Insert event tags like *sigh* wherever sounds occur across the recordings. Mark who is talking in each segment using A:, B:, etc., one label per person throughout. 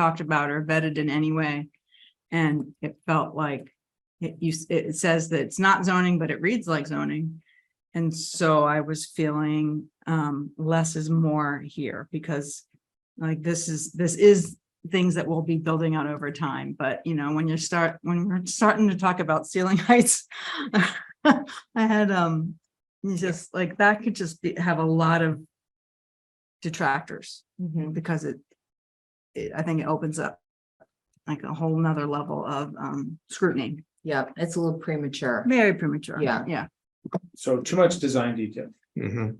A: talked about or vetted in any way. And it felt like it, you, s- it says that it's not zoning, but it reads like zoning. And so I was feeling, um, less is more here because like this is, this is things that we'll be building out over time. But you know, when you start, when we're starting to talk about ceiling *laughs* heights, I had, um, you just like that could just be, have a lot of detractors
B: Mhm.
A: because it, it, I think it opens up like a whole nother level of um scrutiny,
B: Yeah, it's a little premature.
A: very premature.
B: Yeah.
A: Yeah.
C: So too much design detail.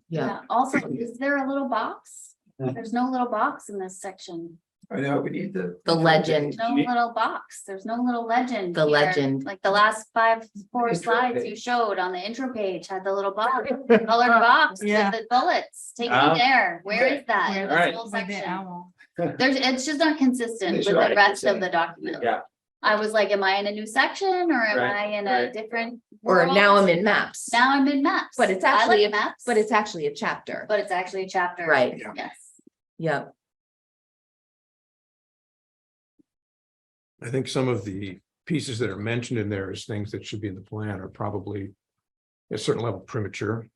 B: Yeah,
D: Also, is there a little box? There's no little box in this section.
C: I know, we need the.
B: The legend.
D: No little box. There's no little legend.
B: The
D: here.
B: legend.
D: Like the last five, four
C: Intro
D: slides you
C: page.
D: showed on the intro page had the little
B: *laughs*
D: box, colored box with
A: Yeah.
D: the bullets. Take me
B: Uh,
C: Ah,
D: there. Where
C: okay.
D: is that?
A: Where-
D: in
C: Alright.
D: this whole section?
C: Yeah,
D: There's, it's just not consistent with
C: It's
D: the
C: not
D: rest of
C: consistent.
D: the document.
C: Yeah.
D: I was like, am I in a new section or am
C: Right,
D: I in
C: right.
D: a different?
B: or now I'm
D: world?
B: in maps,
D: Now I'm in maps.
B: But it's
D: I like
B: actually a-
D: Maps.
B: but it's actually a chapter.
D: But it's actually a chapter.
B: Right.
C: Yeah.
D: Yes.
B: Yeah,
E: I think some of the pieces that are mentioned in there as things that should be in the plan are probably at a certain level premature.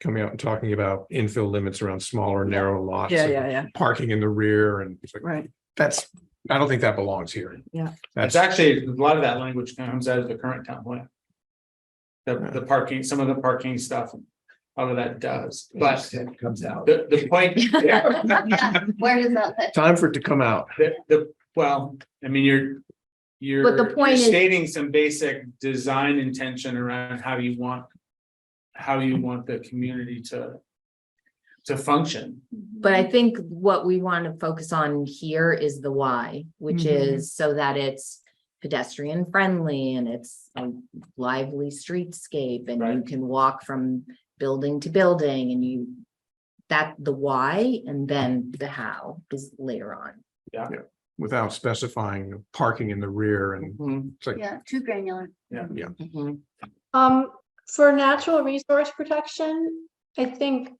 E: Coming out and talking about infill limits around smaller, narrow lots.
A: Yeah,
E: and
A: yeah, yeah.
E: Parking in the rear and it's like,
A: Right.
E: that's, I don't think that belongs here.
A: Yeah.
C: That's
E: That's,
C: actually, a lot of that language comes out of the current town plan. The, the parking, some of the parking stuff, a lot of that does, but
E: comes out.
C: the,
B: *laughs*
C: the point, yeah,
D: Yeah. Where does that live?
E: Time for it to come out.
C: the, the, well, I mean, you're. You're.
B: But the point
C: you're
B: is-
C: Stating some basic design intention around how you want. How you want the community to. To function.
B: but I think what we want to focus on here is the why, which
A: Mhm.
B: is so that it's pedestrian friendly and it's a lively streetscape and you
C: Right.
B: can walk from building to building and you that the why and then the how is later on.
E: Without specifying parking in the rear and
B: Mhm,
E: it's like,
D: Yeah, too granular.
B: mhm.
F: Um, for natural resource protection, I think,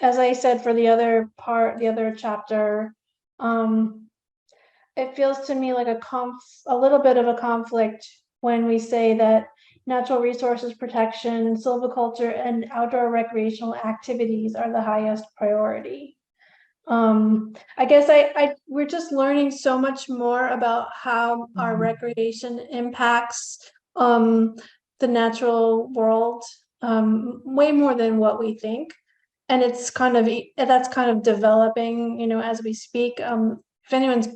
F: as I said, for the other part, the other chapter, um, it feels to me like a conf, a little bit of a conflict when we say that natural resources protection, silviculture and outdoor recreational activities are the highest priority. Um, I guess I, I, we're just learning so much more about how our
A: Mhm.
F: recreation impacts, um, the natural world um, way more than what we think and it's kind of e- that's kind of developing you know as we speak um, if anyone's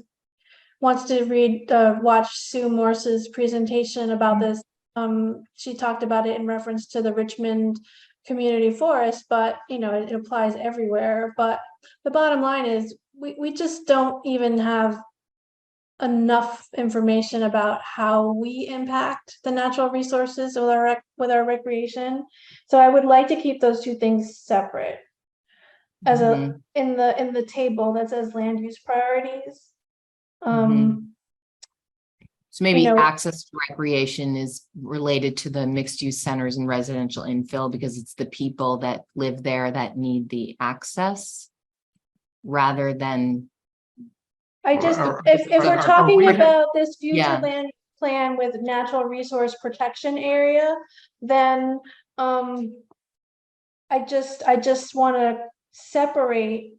F: wants to read uh, watch sue morse's presentation about this um, she talked about it in reference to the richmond community forest but you know it, it applies everywhere but the bottom line is we, we just don't even have enough information about how we impact the natural resources with our rec- with our recreation. So I would like to keep those two things separate. As a, in the, in the table that says land use priorities. Um,
B: So maybe
F: know-
B: access to recreation is related to the mixed use centers and residential infill because it's the people that live there that need the access. Rather than,
F: I just,
E: Are- are-
F: if, if
E: are-
F: we're
E: are
F: talking
E: we-
F: about this future
B: Yeah.
F: land plan with natural resource protection area, then, um, I just, I just want to separate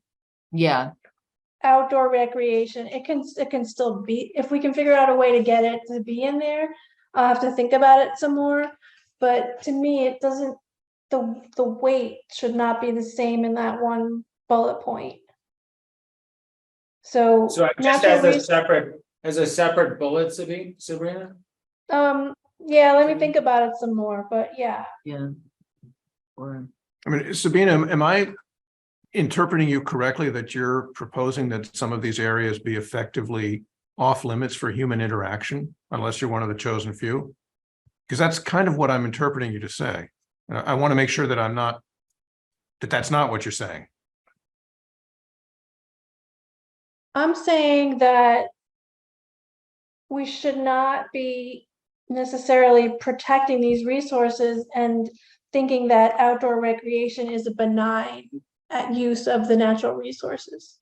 B: yeah,
F: outdoor recreation, it can, it can still be, if we can figure out a way to get it to be in there, I'll have to think about it some more. But to me, it doesn't, the, the weight should not be the same in that one bullet point. So,
C: So just
F: natural
C: as a
F: res-
C: separate, as a separate bullet, Sabi- Sabrina?
F: um, yeah, let me think about it some more, but yeah,
B: yeah. Or,
E: I mean, Sabina, am- am I interpreting you correctly that you're proposing that some of these areas be effectively off limits for human interaction unless you're one of the chosen few? Because that's kind of what I'm interpreting you to say. And I want to make sure that I'm not, that that's not what you're saying.
F: I'm saying that we should not be necessarily protecting these resources and thinking that outdoor recreation is a benign uh, use of the natural resources.